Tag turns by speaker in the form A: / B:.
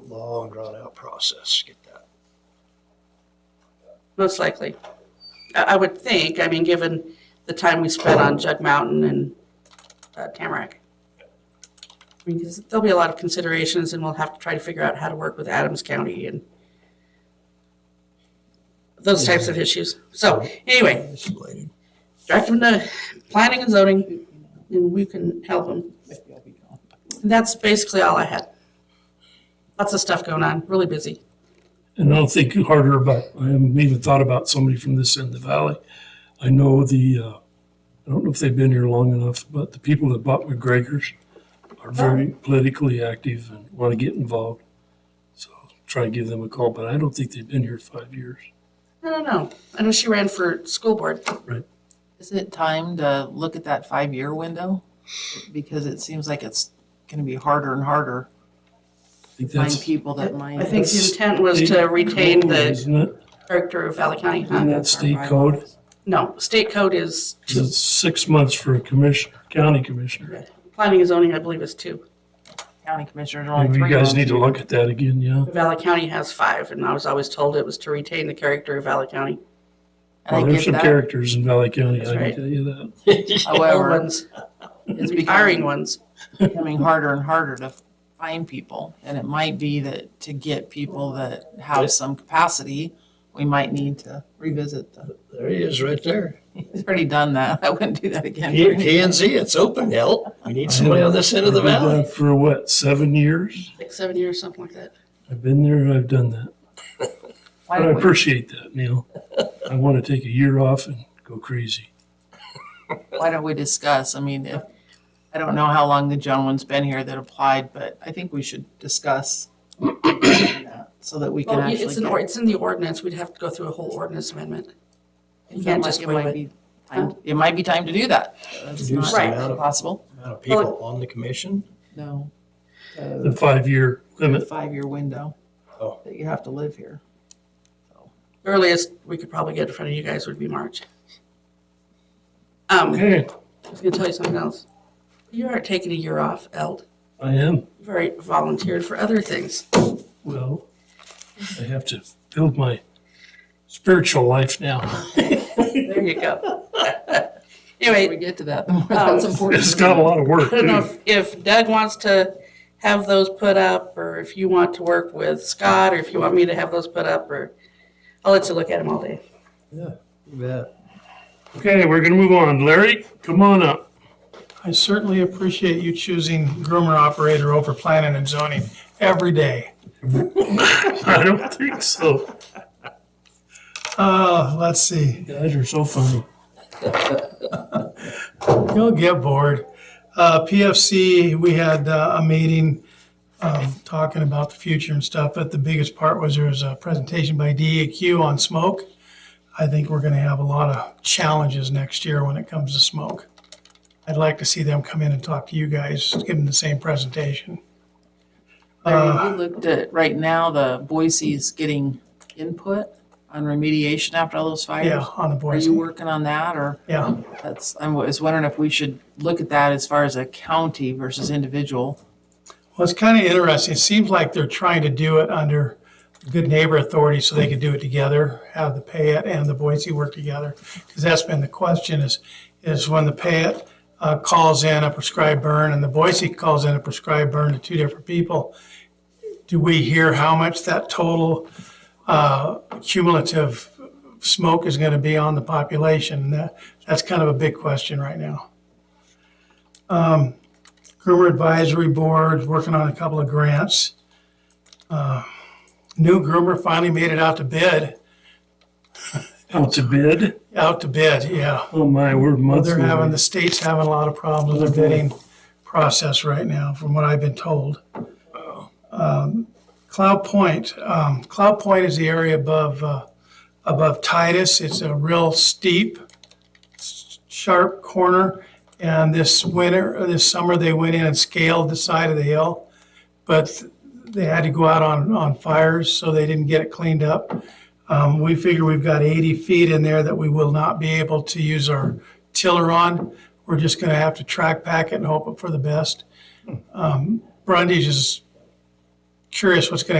A: long drawn out process to get that.
B: most likely. I, I would think, I mean, given the time we spent on Jug Mountain and uh, Tamarack. I mean, 'cause there'll be a lot of considerations and we'll have to try to figure out how to work with Adams County and those types of issues. So anyway,
C: isolated.
B: direct them to planning and zoning and we can help them. That's basically all I had. Lots of stuff going on, really busy.
D: And I'll think harder about, I haven't even thought about somebody from this end of the valley. I know the, uh, I don't know if they've been here long enough, but the people that bought McGregor's are very
E: Oh.
D: politically active and want to get involved. So try and give them a call, but I don't think they've been here five years.
B: I don't know. I know she ran for school board.
E: Is it time to look at that five-year window? Because it seems like it's gonna be harder and harder
D: I think
E: to find
D: that's.
E: people that
B: I
E: might.
B: think the intent was to retain the
D: Isn't it?
B: character of Valley County. huh?
E: Ah,
D: Isn't that state code?
B: No, state code is,
D: 'Cause It's six months for a commission, county commissioner.
B: planning and zoning, I believe, is two.
E: County commissioners are only
D: Maybe
E: three.
D: you guys
E: months.
D: need to look at that again, yeah.
B: Valley County has five, and I was always told it was to retain the character of Valley County.
E: And
D: Well,
E: I
D: there's
E: get
D: some
E: that,
D: characters in Valley County, I
B: right.
D: can tell you that.
B: Old
E: however,
B: ones,
E: it's
B: retiring
E: becoming,
B: ones.
E: becoming harder and harder to find people. And it might be that to get people that have some capacity, we might need to revisit the,
C: There he is, right there.
E: he's already done that. I wouldn't do that again.
C: P P and Z, it's open, hell. We need somebody on this end of the
D: I've been
C: valley.
D: there For what, seven years?
B: Six, seven years, something like that.
D: I've been there, I've done that. But I
E: Why don't we-
D: appreciate that, Neil. I want to take a year off and go crazy.
E: why don't we discuss? I mean, if, I don't know how long the gentleman's been here that applied, but I think we should discuss that so that we can
B: Well,
E: actually.
B: it's in,
E: get-
B: or- it's in the ordinance. We'd have to go through a whole ordinance amendment.
E: it
B: can't
E: might-
B: just
E: it
B: waive
E: might
B: it.
E: be time- It might be time to do that. That's
C: Do
E: not
C: some
B: Right.
C: out of-
E: possible.
C: Amount of people on the commission.
E: No.
D: The five-year limit.
E: Five-year window
C: Oh.
E: that you have to live here.
B: Earliest we could probably get in front of you guys would be March. Um,
D: Okay,
B: I was gonna tell you something else. You aren't taking a year off, Eld.
D: I am.
B: You've already volunteered for other things.
D: Well, I have to build my spiritual life now.
B: There you go.
E: When we
B: Anyway,
E: get to that, the more that's
B: Oh.
E: important.
D: It's got a lot of work,
B: I don't know
D: too.
B: if- if Doug wants to have those put up, or if you want to work with Scott, or if you want me to have those put up, or I'll let you look at them all day.
C: Yeah.
D: Okay, we're going to move on. Larry, come on up.
F: I certainly appreciate you choosing groomer operator over planning and zoning every day.
D: I don't think so.
F: Uh, let's see,
D: You guys are so funny.
F: you'll get bored. Uh, PFC, we had uh, a meeting, um, talking about the future and stuff, but the biggest part was there was a presentation by DEQ on smoke. I think we're gonna have a lot of challenges next year when it comes to smoke. I'd like to see them come in and talk to you guys, give them the same presentation.
E: Larry, We looked at, right now, the Boise's getting input on remediation after all those fires.
F: Yeah, on the
E: Are
F: boys,
E: you working on that or?
F: yeah.
E: That's, I was wondering if we should look at that as far as a county versus individual.
F: Well, it's kind of interesting. It seems like they're trying to do it under good neighbor authority so they could do it together, have the Payette and the Boise work together. Because that's been the question is, is when the Payette uh, calls in a prescribed burn and the Boise calls in a prescribed burn to two different people, do we hear how much that total uh, cumulative smoke is going to be on the population? And that, that's kind of a big question right now. Groomer Advisory Board, working on a couple of grants. Uh, New groomer finally made it out to bid,
D: Out to bid?
F: out to bid, yeah.
D: Oh my, we're months.
F: They're having,
D: away.
F: the state's having a lot of problems with their bidding process right now, from what I've been told. Um, Cloud Point, um, Cloud Point is the area above, uh, above Titus. It's a real steep, s- sharp corner. And this winter, uh, this summer, they went in and scaled the side of the hill. But they had to go out on, on fires, so they didn't get it cleaned up. Um, we figure we've got 80 feet in there that we will not be able to use our tiller on. We're just gonna have to track pack it and hope for the best. Um, Brundage is curious what's gonna